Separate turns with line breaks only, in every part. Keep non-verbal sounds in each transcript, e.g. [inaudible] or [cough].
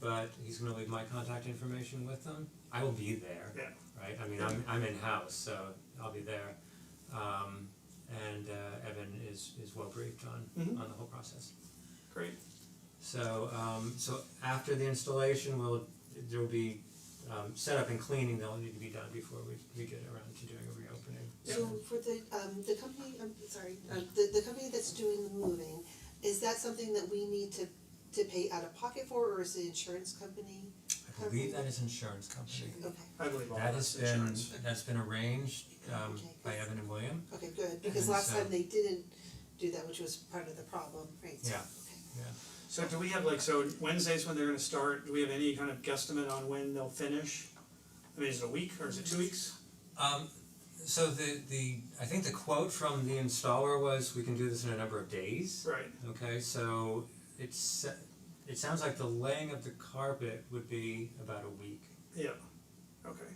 but he's gonna leave my contact information with them. I will be there.
Yeah.
Right, I mean, I'm I'm in house, so I'll be there. Um and uh Evan is is well briefed on
Mhm.
on the whole process.
Great.
So um so after the installation, we'll there will be um setup and cleaning that'll need to be done before we we get around to doing a reopening.
So for the um the company, I'm sorry, uh the the company that's doing the moving, is that something that we need to to pay out of pocket for or is the insurance company?
I believe that is insurance company.
Mm-hmm.
Okay,
I believe all
That
that's
has been,
insurance.
that's been arranged um
Okay.
by Evan and William,
okay, good, because
And
last
so-
time they didn't do that, which was part of the problem, right? So,
Yeah.
Okay,
So do we have like, so Wednesday's when they're gonna start, do we have any kind of guesstimate on when they'll finish? I mean, is it a week or is it two weeks?
Um so the the I think the quote from the installer was we can do this in a number of days.
Right,
Okay, so it's it sounds like the laying of the carpet would be about a week.
yeah, okay.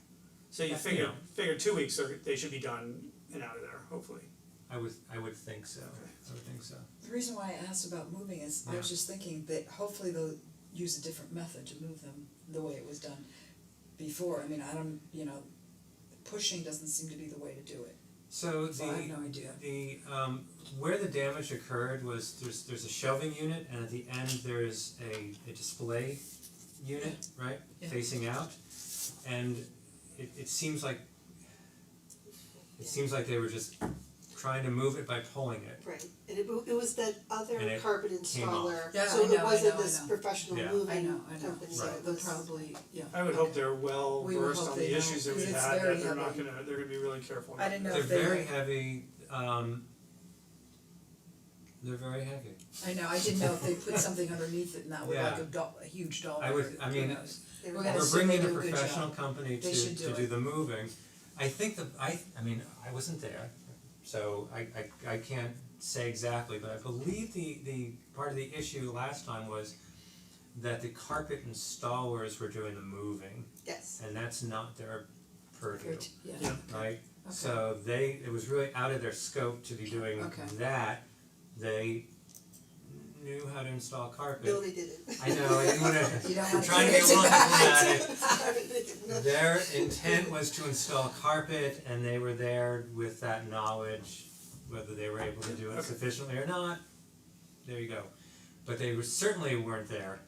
So you
Yeah.
figure, figure two weeks, they're- they should be done and out of there, hopefully.
I would I would think so.
Okay.
I would think so.
The reason why I asked about moving is I was just thinking that hopefully they'll use a different method to move them the way it was done before. I mean, I don't, you know, pushing doesn't seem to be the way to do it.
So
So I have
the
no idea.
the um where the damage occurred was there's there's a shelving unit and at the end there is a a display unit, right?
Yeah.
Facing out. And it it seems like it seems like they were just trying to move it by pulling it.
right, and it wa- it was that other
And it
carpet
came off.
installer,
Yeah, I
so
know,
it
I
wasn't
know, I
this
know.
professional
Yeah. I
I
moving
know, I know.
company, so
So
it
they'll
was-
probably, yeah.
I would hope
okay.
they're well
We would
versed
hope
on
they
the
know,
issues that we
'cause it's
had,
very
that they're not
heavy.
gonna, they're gonna be really careful.
I didn't know
They're
if they were-
very heavy, um they're very heavy.
I know, I didn't know if they [laughs] put something underneath it and that would like
Yeah.
a doll, a huge doll.
I would- I mean,
they
We're
were
gonna
We're
assume they
bringing a
do a good
professional company
They
to
should do
to do
it.
the moving. I think the, I, I mean, I wasn't there, so I I I can't say exactly, but I believe the the part of the issue last time was that the carpet installers were doing the moving,
yes,
and that's not their purview,
Yeah,
Yeah.
right?
Okay.
So they, it was really out of their scope to be doing
Okay.
that. They knew how to install carpet.
Billy did it.
I know, I didn't wanna,
[laughs] You don't
I'm
[laughs]
wanna
trying to [laughs]
give
get
it
one
[laughs] to
at it.
No,
Their intent was to install carpet and they were there with that knowledge, whether they were able to do it
Okay.
sufficiently or not, there you go. But they were certainly weren't there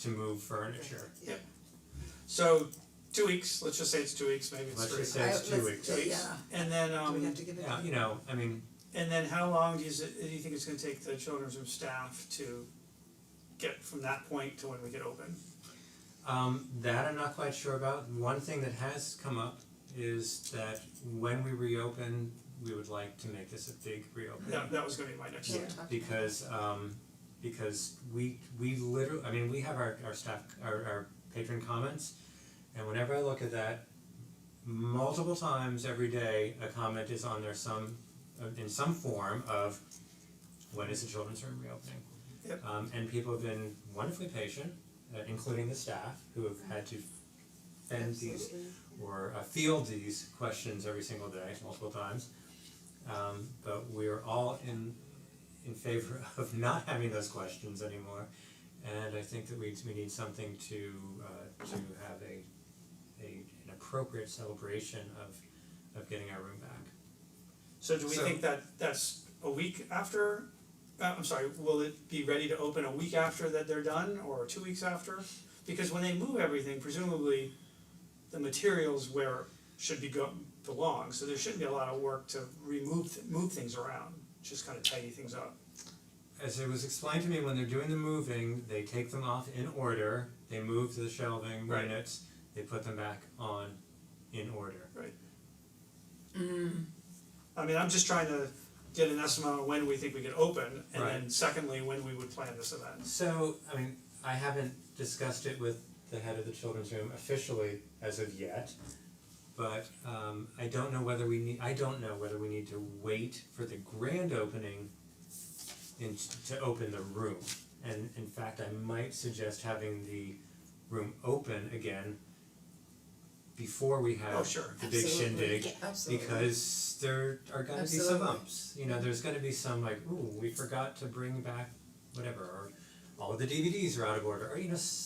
to move furniture,
Yeah.
So, two weeks, let's just say it's two weeks, maybe it's
let's
three.
just say it's
I-
two
let's-
weeks.
Two weeks,
Yeah.
and then um.
do we have to give it?
Yeah, you know, I mean,
And then how long do you, s- do you think it's gonna take the children's room staff to get from that point to when we get open?
um that I'm not quite sure about, one thing that has come up is that when we reopen, we would like to make this a big reopening.
That that was gonna be my next
Yeah,
one.
because um because we we literally, I mean, we have our our staff, our our patron comments. And whenever I look at that, multiple times every day, a comment is on there some uh, in some form of when is the children's room reopening?
Yep.
Um and people have been wonderfully patient, uh, including the staff who have had to fend these
Absolutely.
or uh, field these questions every single day, multiple times. Um, but we are all in in favor [laughs] of not having those questions anymore, and I think that we we need something to uh, to have a a an appropriate celebration of of getting our room back.
So do we
So-
think that that's a week after, uh, I'm sorry, will it be ready to open a week after that they're done or two weeks after? Because when they move everything, presumably the materials where it should be go, belong, so there shouldn't be a lot of work to remove, th- move things around, just kind of tidy things up.
As it was explained to me, when they're doing the moving, they take them off in order. They move to the shelving
Right.
units. They put them back on in order.
I mean, I'm just trying to get an estimate on when we think we could open, and then secondly, when we would plan this event.
So, I mean, I haven't discussed it with the head of the children's room officially as of yet. But um I don't know whether we need, I don't know whether we need to wait for the grand opening in to open the room. And in fact, I might suggest having the room open again before we have
Oh, sure.
the big
Absolutely.
shindig
Absolutely.
because there are gonna be some
Absolutely.
bumps, you know, there's gonna be some like, ooh, we forgot to bring back whatever, or all of the DVDs are out of order, or you know, s-